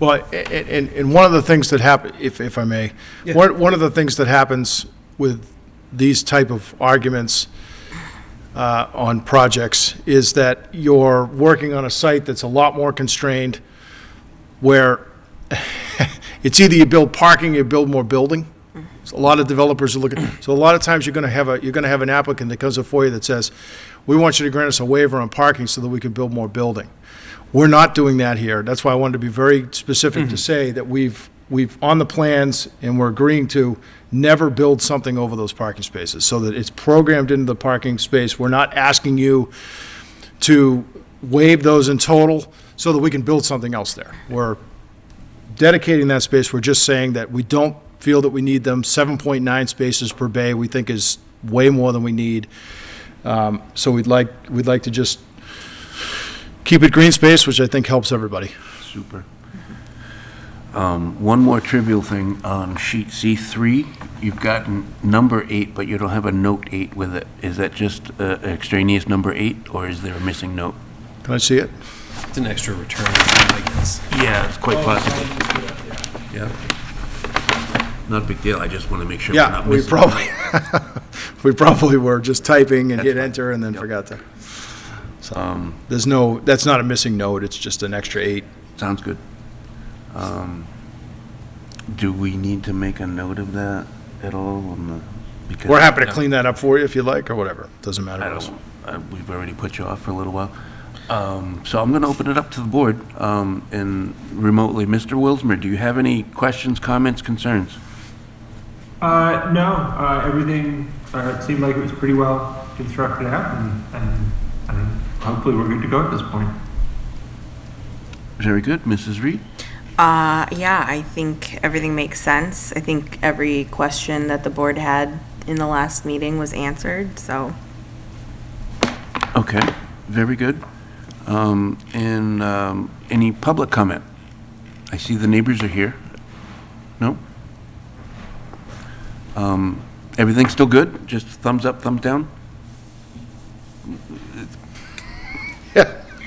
Well, a- a- and, and one of the things that happen, if, if I may, Yeah. one, one of the things that happens with these type of arguments uh, on projects is that you're working on a site that's a lot more constrained, where it's either you build parking, you build more building. So a lot of developers are looking, so a lot of times you're gonna have a, you're gonna have an applicant that comes before you that says, we want you to grant us a waiver on parking so that we can build more building. We're not doing that here. That's why I wanted to be very specific to say that we've, we've, on the plans, and we're agreeing to never build something over those parking spaces, so that it's programmed into the parking space. We're not asking you to waive those in total so that we can build something else there. We're dedicating that space, we're just saying that we don't feel that we need them. 7.9 spaces per bay, we think is way more than we need. Um, So we'd like, we'd like to just keep it green space, which I think helps everybody. Super. Um, One more trivial thing, on sheet C3, you've got n- number eight, but you don't have a note eight with it. Is that just uh, extraneous number eight, or is there a missing note? Can I see it? It's an extra return, I guess. Yeah, it's quite possible. Yeah. Not a big deal, I just want to make sure we're Yeah, not we missing. probably, we probably were just typing and hit fine. Um, enter and then forgot to. So, there's no, that's not a missing note, it's just an extra eight. Sounds good. Um, Do we need to make a note of that at all? on the- because- We're happy to clean that up for you if you like, or whatever, doesn't matter I to us. don't, uh, we've already put you off for a little while. Um, So I'm going to open it up to the board um, and remotely, Mr. Wilsmer, do you have any questions, comments, concerns? Uh, no, uh, everything uh, it seemed like it was pretty well constructed out, and, and, and hopefully we're good to go at this point. Very good, Mrs. Reed? Uh, yeah, I think everything makes sense. I think every question that the board had in the last meeting was answered, so. Okay, very good. Um, And um, any public comment? I see the neighbors are here. No? Um, Everything's still good? Just thumbs up, thumbs down?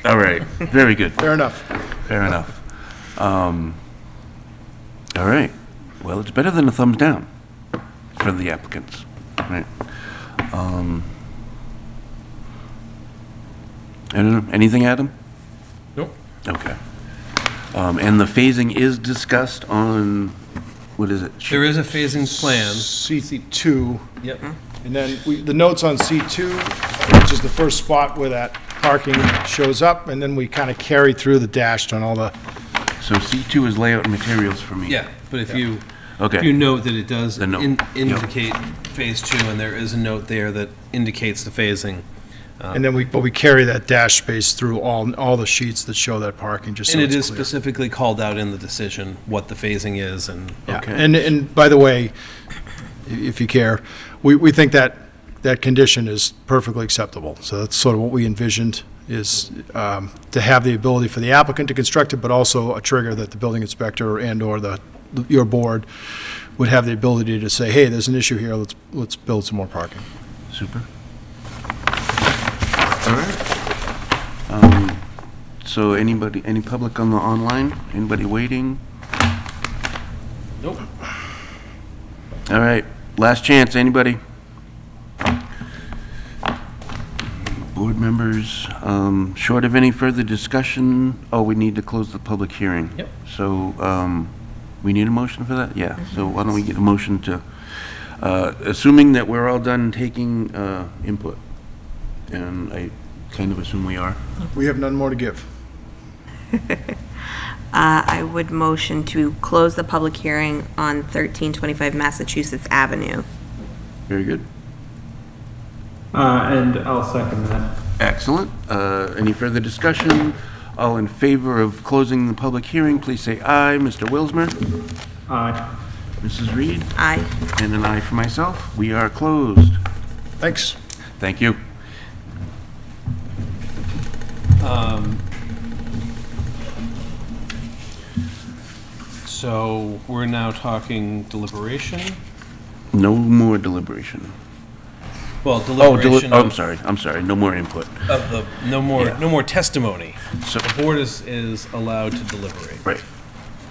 All right, very good. Fair enough. Fair enough. Um, All right. Well, it's better than a thumbs down for the applicants, right? Um, I don't know. Anything, Adam? Nope. Okay. Um, And the phasing is discussed on, what is it? There is a phasing plan. C2, Yep. and then we, the notes on C2, which is the first spot where that parking shows up, and then we kind of carry through the dashed on all the, So C2 is layout and materials for me. Yeah, but if you, if you Okay, note that it does The note. in- Yeah. indicate phase two, and there is a note there that indicates the phasing. and then we, but we carry that dash space through all, all the sheets that show that parking, just so And it is it's clear. specifically called out in the decision what the phasing is and. Yeah, Okay. and, and by the way, i- if you care, we, we think that, that condition is perfectly acceptable. So that's sort of what we envisioned, is um, to have the ability for the applicant to construct it, but also a trigger that the building inspector and/or the, your board would have the ability to say, hey, there's an issue here, let's, let's build some more parking. super. All right. Um, So anybody, any public on the online? Anybody waiting? Nope. All right, last chance, anybody? Board members, um, short of any further discussion, oh, we need to close the public hearing. Yep. So, um, we need a motion for that? Yeah, so why don't we get a motion to, uh, assuming that we're all done taking, uh, input, and I kind of assume we are. We have none more to give. Uh, I would motion to close the public hearing on 1325 Massachusetts Avenue. Very good. Uh, and I'll second that. Excellent. Uh, Any further discussion? All in favor of closing the public hearing, please say aye. Mr. Wilsmer? Aye. Mrs. Reed? Aye. And an aye for myself. We are closed. Thanks. Thank you. So we're now talking deliberation? No more deliberation. Well, Oh, deli- deliberation oh, I'm of, sorry, I'm sorry, no more input. of the, no more, Yeah. no more testimony. So, The board is, is allowed to deliberate. right,